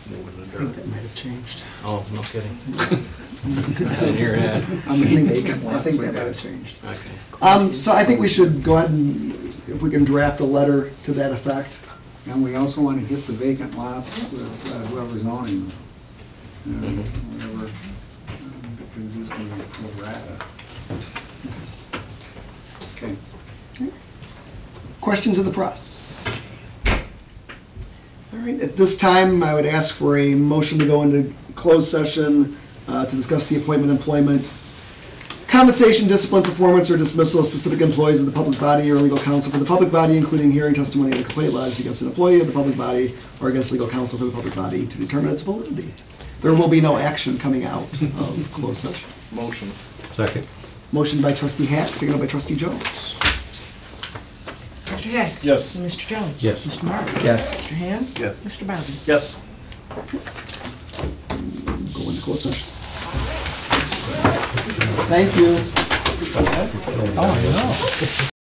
I think that might have changed. Oh, no kidding. Didn't hear that. I think, I think that might have changed. Okay. Um, so I think we should go ahead and, if we can draft a letter to that effect. And we also want to hit the vacant lots with uh, whoever's owning them. You know, Whatever, um, because it's going to be pro rata. Okay. Questions of the press? All right, at this time, I would ask for a motion to go into closed session uh, to discuss the appointment, employment, compensation, discipline, performance, or dismissal of specific employees of the public body or legal counsel for the public body, including hearing testimony and a complaint lodged against an employee of the public body or against legal counsel for the public body to determine its validity. There will be no action coming out of closed session. Motion. Second. Motion by trustee Hack, seconded by trustee Jones. Mr. Hack? Yes. Mr. Jones? Yes. Mr. Martin? Yes. Mr. Hand? Yes. Mr. Bowden? Yes. Go into closed session. Thank you.